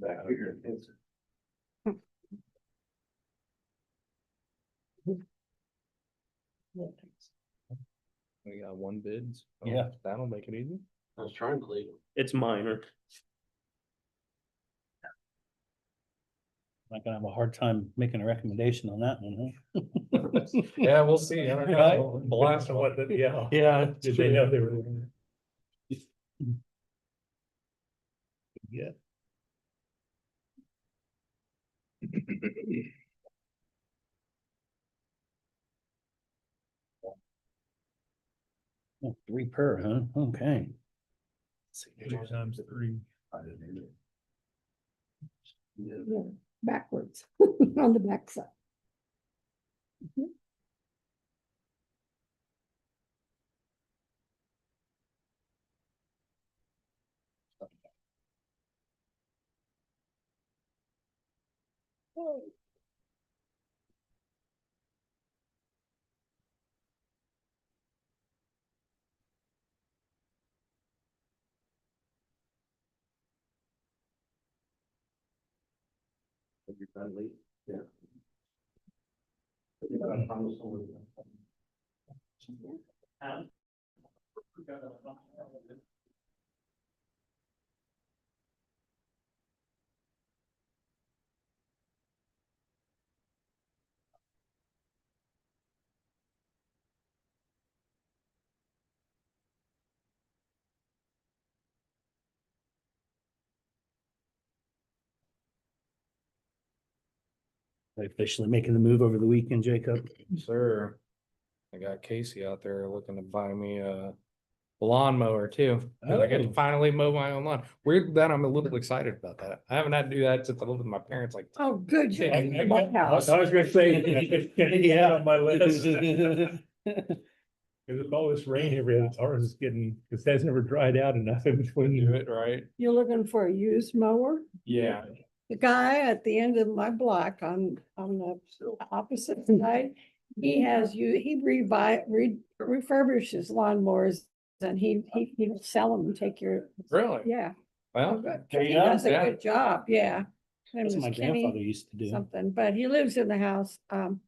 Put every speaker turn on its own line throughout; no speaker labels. back
Uh,
here. It's-
We got one bid. so
Yeah.
That'll make it easy.
I was trying to leave.
It's minor.
Not gonna have a hard time making a recommendation on that one, huh?
Yeah, we'll see.
don't know. Right?
Blast of what, yeah.
Yeah.
Did they know they were?
Yeah. Oh, Three per, huh? Okay.
times three.
Yeah, backwards, on the backside.
You're trying to leave? Yeah. You know, I promised someone.
Officially making the move over the weekend, Jacob.
Sir. I got Casey out there looking to buy me a lawnmower too. 'cause I get to
Oh.
finally mow my own lawn. Weird that I'm a little excited about that. I haven't had to do that since I lived with my parents like.
Oh, good. you're
Yeah,
in
I- I-
that house.
I was gonna say.
Yeah.
On my list, because with all this rain every other hour is getting, because that's never dried out enough in
Do
between.
it right.
You're looking for a used mower?
Yeah.
The guy at the end of my block on, on the opposite side, he has you, he revi, re- refurbishes lawnmowers. And he, he, he'll sell them and take your,
Really?
yeah, oh,
Well,
good.
There you
He
go.
does a
Yeah.
good job, yeah. His name
That's
is
what my
Kenny
grandfather used to do.
Something, but he lives in the house, um,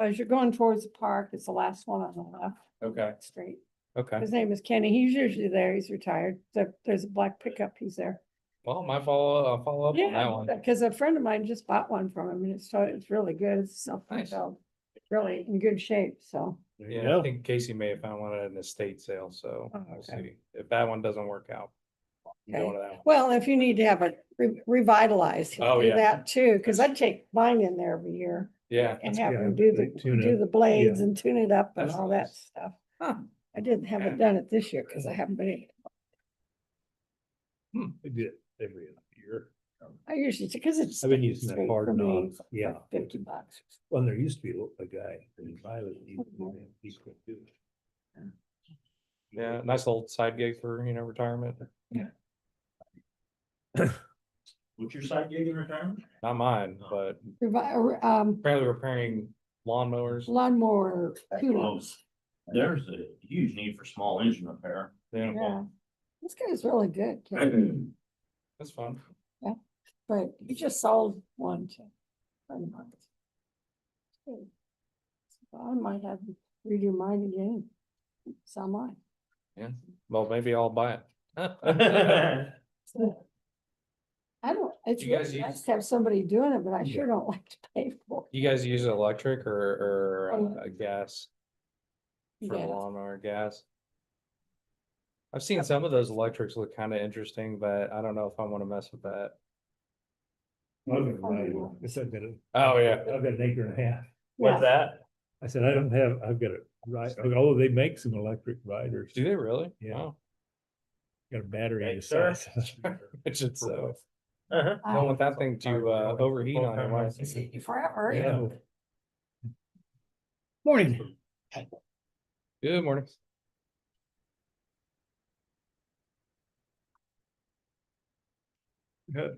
as you're going towards the park, it's the last one on the left.
okay,
Street.
okay.
His name is Kenny. He's usually there. He's retired. There- There's a black pickup. He's there.
Well, my follow, I'll follow up on Oh, that
Yeah,
one.
because a friend of mine just bought one from him and it's, so it's really good. It's self-propelled. Really in good shape, so.
There you
Yeah, I
go.
think Casey may have found one at an estate sale, so
Oh,
we'll
okay.
see. If that one doesn't work out. you go
Okay.
to that one.
Well, if you need to have it re- revitalized,
Oh,
he'll do
yeah.
that too, because I take mine in there every year
Yeah.
and
That's
have
good.
him do
They
the,
tune
do
it.
the blades and tune it up and
That's
all that
nice.
stuff.
Huh.
I didn't have it done it this year because I haven't been, able-
I do it every other year.
I usually, because it's.
I've been using that
great for
hard
me,
knob,
it's like
yeah.
Fifty bucks.
Well, there used to be a a guy, and I was. he- he couldn't do it.
Yeah, nice little side gig for, you know, retirement.
What's your side gig in retirement?
Not mine, but
Revi- um,
apparently repairing lawnmowers.
lawnmower
Oh,
coolers.
There's a huge need for small engine repair.
Yeah,
Yeah,
well,
this guy's really good, kid,
Well,
that's fun.
but he just sold one to. friend of mine. So I might have to redo mine again, sell mine.
Well, maybe I'll buy it.
So, I don't, it's
You guys
really
use-
nice to have somebody doing it, but I
Yeah.
sure don't like to pay for
You guys use electric or,
Oh.
or uh, gas
it.
for the
Yeah.
lawnmower gas? I've seen some of those electrics look kind of interesting, but I don't know if I want to mess with that.
I don't know. I said, I've got a-
Oh, yeah.
I've got an acre and a half.
Yeah,
that?
I said, I don't have, I've got a ride, although they make some electric riders,
Do they really?
Yeah.
Wow.
got a battery. in
Hey,
the
sir.
size.
I should say.
Uh-huh.
I
Don't want that thing to uh overheat on you. right?
can see you Forever, yeah.
Yeah.
Morning.
Good morning.
Yeah.